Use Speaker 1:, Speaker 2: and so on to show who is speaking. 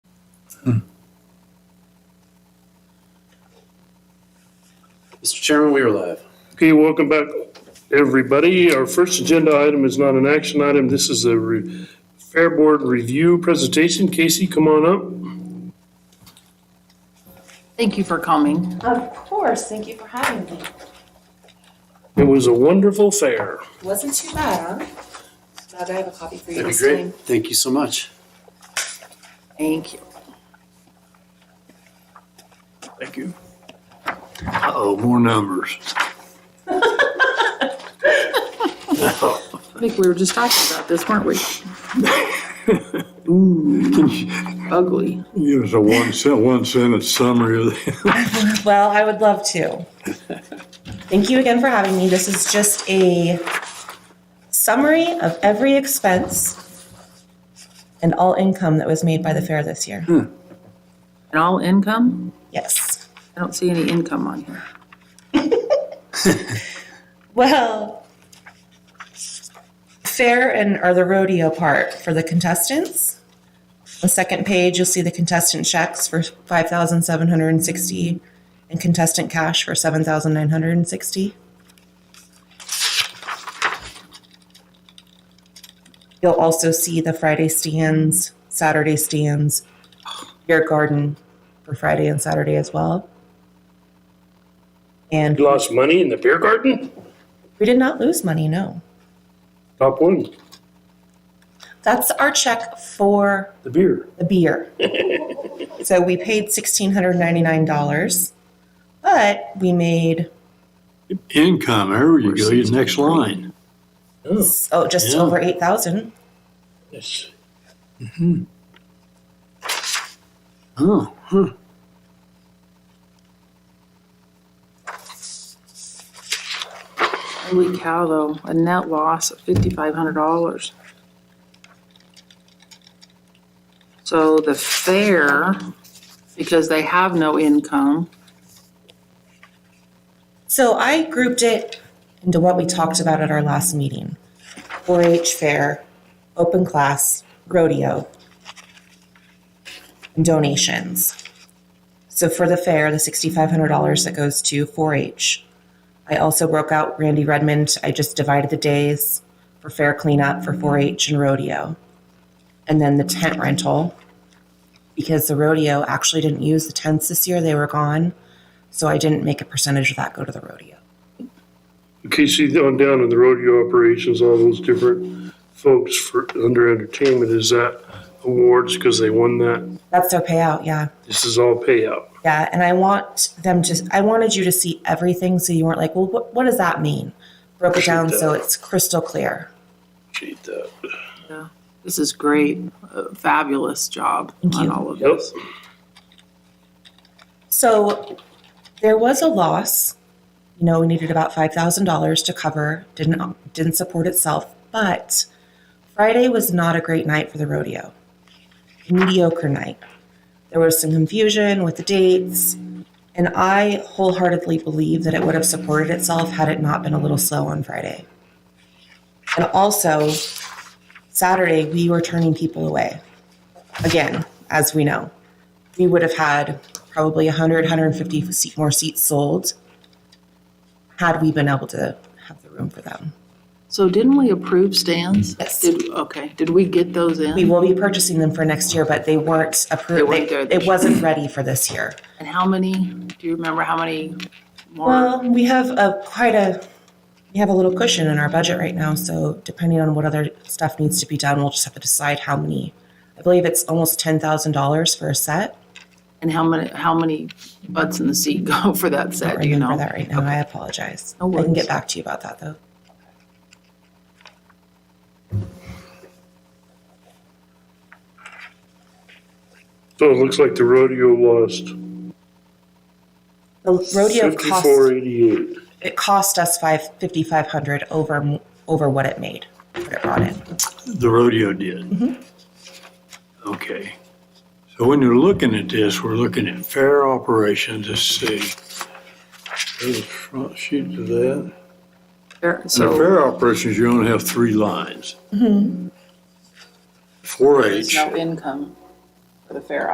Speaker 1: Mr. Chairman, we are live.
Speaker 2: Okay, welcome back, everybody. Our first agenda item is not an action item. This is a re- Fair Board Review Presentation. Casey, come on up.
Speaker 3: Thank you for coming.
Speaker 4: Of course, thank you for having me.
Speaker 2: It was a wonderful fair.
Speaker 4: Wasn't too bad. Glad I have a copy for you
Speaker 1: That'd be
Speaker 4: this
Speaker 1: great.
Speaker 4: time.
Speaker 1: Thank you so much.
Speaker 3: Thank you.
Speaker 2: Thank you.
Speaker 5: Uh-oh, more numbers.
Speaker 3: I think we were just talking about this, weren't we? Ooh, ugly.
Speaker 5: Give us a one sen- one sentence summary of that.
Speaker 4: Well, I would love to. Thank you again for having me. This is just a summary of every expense and all income that was made by the fair this year.
Speaker 1: Hmm.
Speaker 3: And all income?
Speaker 4: Yes.
Speaker 3: I don't see any income on here.
Speaker 4: Well, fair and are the rodeo part for the contestants. The second page, you'll see the contestant checks for five thousand seven hundred and sixty, and contestant cash for seven thousand nine hundred and sixty. You'll also see the Friday stands, Saturday stands, your garden for Friday and Saturday as well. And
Speaker 2: You lost money in the beer garden?
Speaker 4: we did not lose money, no.
Speaker 2: Top one,
Speaker 4: That's our check for
Speaker 2: the beer.
Speaker 4: the beer. so we paid $1,699, but we made
Speaker 5: income, there you go, your next line.
Speaker 2: Oh,
Speaker 4: oh, just
Speaker 5: Yeah.
Speaker 4: over 8000
Speaker 2: yes.
Speaker 5: Oh, huh.
Speaker 3: Holy cow, though, a net loss of fifty-five hundred dollars. So the fair, because they have no income,
Speaker 4: So I grouped it into what we talked about at our last meeting 4 H fair, open class, rodeo, and donations. So for the fair, the $6,500 that goes to 4 H. I also broke out Randy Redmond. I just divided the days for fair cleanup for 4 H and rodeo. And then the tent rental, because the rodeo actually didn't use the tents this year, they were gone. So I didn't make a percentage of that go to the rodeo.
Speaker 2: Okay, see, on down in the rodeo operations, all those different folks for, under entertainment, is that awards because they won that?
Speaker 4: That's their payout, yeah.
Speaker 2: This is all payout.
Speaker 4: Yeah, and I want them to, I wanted you to see everything so you weren't like, well, what, what does that mean? Broke it down so it's crystal clear.
Speaker 2: Appreciate that.
Speaker 3: this is great, A fabulous job on
Speaker 4: you.
Speaker 3: all of
Speaker 2: Yep.
Speaker 3: this.
Speaker 4: So there was a loss. You know, we needed about $5,000 to cover, didn't, didn't support itself, but Friday was not a great night for the rodeo. Mediocre night. There was some confusion with the dates, and I wholeheartedly believe that it would have supported itself had it not been a little slow on Friday. And also, Saturday, we were turning people away. Again, as we know, we would have had probably 100, 150 seat, more seats sold had we been able to have the room for them.
Speaker 3: So didn't we approve stands?
Speaker 4: Yes.
Speaker 3: Did, okay, did we get those in?
Speaker 4: We will be purchasing them for next year, but they weren't
Speaker 3: They
Speaker 4: approved.
Speaker 3: weren't there this
Speaker 4: It wasn't ready for this year.
Speaker 3: And how many, do you remember how many more?
Speaker 4: Well, we have a quite a we have a little cushion in our budget right now, so depending on what other stuff needs to be done, we'll just have to decide how many. I believe it's almost ten thousand dollars for a set.
Speaker 3: And how many, how many butts in the seat go for that
Speaker 4: I
Speaker 3: set,
Speaker 4: don't
Speaker 3: do you
Speaker 4: remember
Speaker 3: know?
Speaker 4: that right now. I apologize.
Speaker 3: No
Speaker 4: I can
Speaker 3: worries.
Speaker 4: get back to you about that though.
Speaker 2: So it looks like the rodeo lost
Speaker 4: The rodeo
Speaker 2: fifty-four
Speaker 4: cost
Speaker 2: eighty-eight.
Speaker 4: it cost us five fifty five hundred over over what it made. What it brought in.
Speaker 5: The rodeo did.
Speaker 3: Mm-hmm.
Speaker 5: Okay. So when you're looking at this, we're looking at fair operations, let's see. There's a front sheet to that.
Speaker 3: Fair-
Speaker 5: And the
Speaker 3: So Mm-hmm.
Speaker 5: fair operations, you only have three lines. Four H.
Speaker 3: there's no income for the fair